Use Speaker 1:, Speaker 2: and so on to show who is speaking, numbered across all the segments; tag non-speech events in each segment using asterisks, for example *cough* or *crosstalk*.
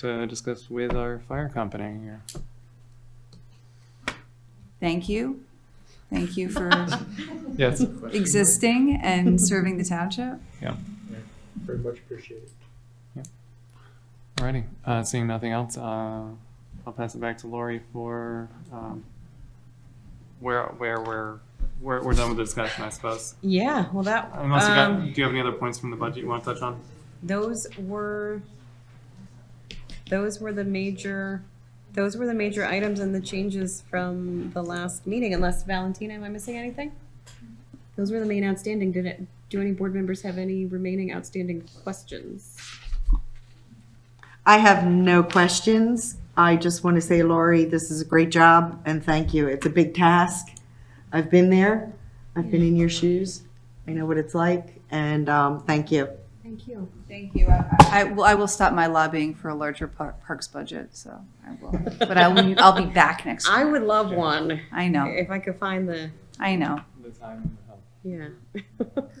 Speaker 1: to discuss with our fire company here.
Speaker 2: Thank you. Thank you for
Speaker 1: Yes.
Speaker 2: existing and serving the township.
Speaker 3: Very much appreciated.
Speaker 1: Alrighty, uh, seeing nothing else, uh, I'll pass it back to Lori for, um, where, where, where, we're, we're done with the discussion, I suppose.
Speaker 4: Yeah, well, that,
Speaker 1: Unless you got,
Speaker 4: um,
Speaker 1: do you have any other points from the budget you want to touch on?
Speaker 4: those were, those were the major, those were the major items and the changes from the last meeting, unless Valentina, am I missing anything? Those were the main outstanding. Did it, do any board members have any remaining outstanding questions?
Speaker 5: I have no questions. I just want to say, Lori, this is a great job and thank you. It's a big task. I've been there. I've been in your shoes. I know what it's like and um, thank you.
Speaker 4: Thank you.
Speaker 2: Thank you. I I will, I will stop my lobbying for a larger par- parks budget, so I will. But I will, I'll be back next
Speaker 4: I
Speaker 2: year.
Speaker 4: would love one,
Speaker 2: I know,
Speaker 4: if I could find the,
Speaker 2: I know.
Speaker 1: The time and the help.
Speaker 4: yeah. *laughs*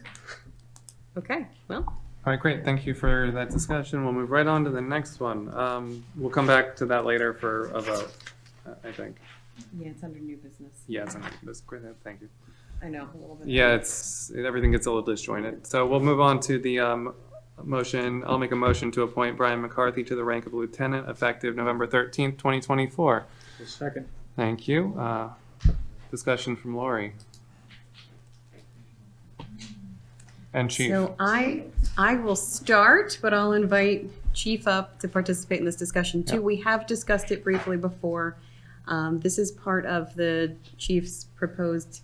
Speaker 4: Okay, well,
Speaker 1: All right, great. Thank you for that discussion. We'll move right on to the next one. Um, we'll come back to that later for a vote, I- I think.
Speaker 4: yeah, it's under new business.
Speaker 1: Yes, and that's great. Thank you.
Speaker 4: I know, a little bit.
Speaker 1: Yeah, it's, everything gets a little disjointed. So we'll move on to the um, motion. I'll make a motion to appoint Brian McCarthy to the rank of lieutenant effective November 13th, 2024.
Speaker 3: The second.
Speaker 1: Thank you. Uh, Discussion from Lori. And Chief.
Speaker 4: So I, I will start, but I'll invite Chief up to participate in this discussion too. We have discussed it briefly before. Um, This is part of the chief's proposed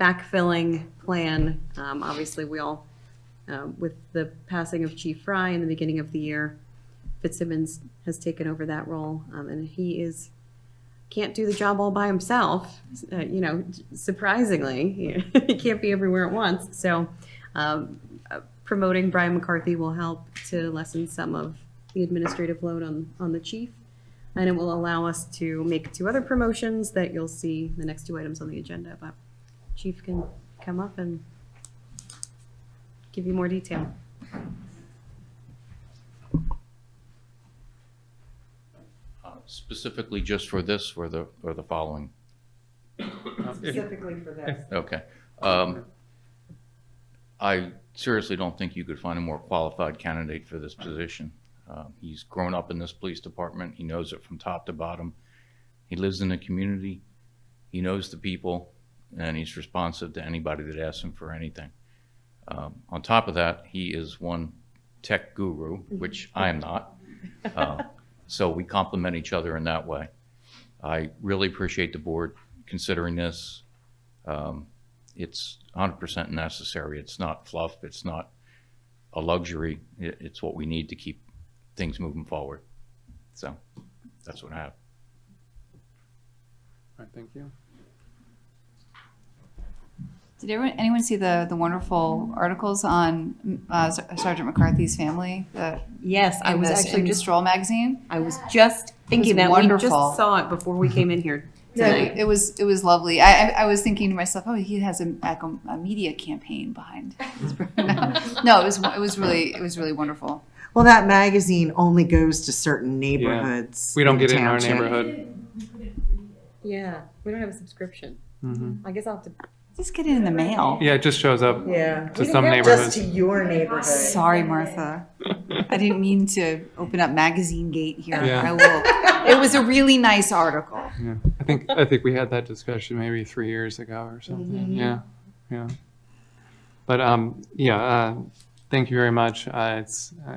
Speaker 4: backfilling plan. Um, Obviously, we all, um, with the passing of Chief Fry in the beginning of the year, Fitzsimmons has taken over that role, um, and he is, can't do the job all by himself, uh, you know, surprisingly. *laughs* He can't be everywhere at once, so um, uh, promoting Brian McCarthy will help to lessen some of the administrative load on, on the chief. And it will allow us to make two other promotions that you'll see the next two items on the agenda, but chief can come up and give you more detail.
Speaker 6: Specifically just for this or the, or the following?
Speaker 5: Specifically for this.
Speaker 6: Okay. Um, I seriously don't think you could find a more qualified candidate for this position. Uh, He's grown up in this police department. He knows it from top to bottom. He lives in the community. He knows the people, and he's responsive to anybody that asks him for anything. Um, On top of that, he is one tech guru, which I am not. Uh, So we complement each other in that way. I really appreciate the board considering this um, it's 100% necessary. It's not fluff. It's not a luxury. It, it's what we need to keep things moving forward. So that's what I have.
Speaker 1: All right, thank you.
Speaker 2: Did everyone, anyone see the, the wonderful articles on uh, Sergeant McCarthy's family? The,
Speaker 4: Yes, I
Speaker 2: in
Speaker 4: was
Speaker 2: the-
Speaker 4: actually
Speaker 2: in the
Speaker 4: just,
Speaker 2: Stroll magazine?
Speaker 4: I was just thinking that. We just
Speaker 2: wonderful.
Speaker 4: saw it before we came in here tonight.
Speaker 2: It it was, it was lovely. I, I I was thinking to myself, oh, he has a, like a, a media campaign behind. his *laughs* program. No, it was, it was really, it was really wonderful.
Speaker 5: Well, that magazine only goes to certain neighborhoods.
Speaker 1: We don't
Speaker 5: the
Speaker 1: get it in our
Speaker 5: township.
Speaker 1: neighborhood.
Speaker 4: Yeah, we don't have a subscription.
Speaker 1: Mhm.
Speaker 4: I guess I'll have to
Speaker 2: Just get it in the mail.
Speaker 1: Yeah, it just shows up
Speaker 5: Yeah.
Speaker 1: to some
Speaker 5: Just to
Speaker 1: neighborhoods.
Speaker 5: your neighborhood.
Speaker 2: Sorry, Martha. I didn't mean to open up Magazine Gate here.
Speaker 1: Yeah.
Speaker 2: I will. It was a really nice article.
Speaker 1: Yeah, I think, I think we had that discussion maybe three years ago or something. Yeah, yeah. But, um, yeah, uh, thank you very much. Uh, it's, uh,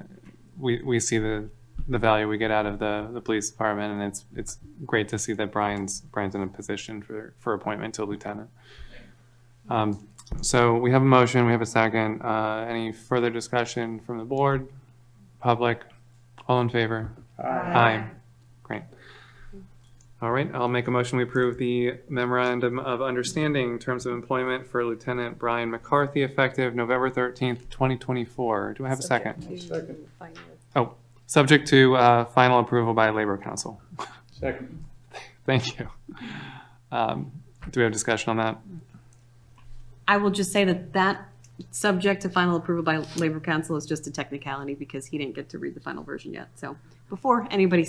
Speaker 1: we, we see the, the value we get out of the, the police department and it's, it's great to see that Brian's, Brian's in a position for, for appointment to lieutenant. Um, so we have a motion, we have a second. Uh, any further discussion from the board, public? All in favor? Aye. Great. All right, I'll make a motion, we approve the memorandum of understanding terms of employment for Lieutenant Brian McCarthy effective November thirteenth, twenty twenty-four. Do I have a second? Oh,
Speaker 3: Second.
Speaker 1: Subject to, uh, final approval by Labor Council.
Speaker 3: Second.
Speaker 1: Thank you. Um, do we have discussion on that?
Speaker 4: I will just say that that subject to final approval by Labor Council is just a technicality because he didn't get to read the final version yet. So before anybody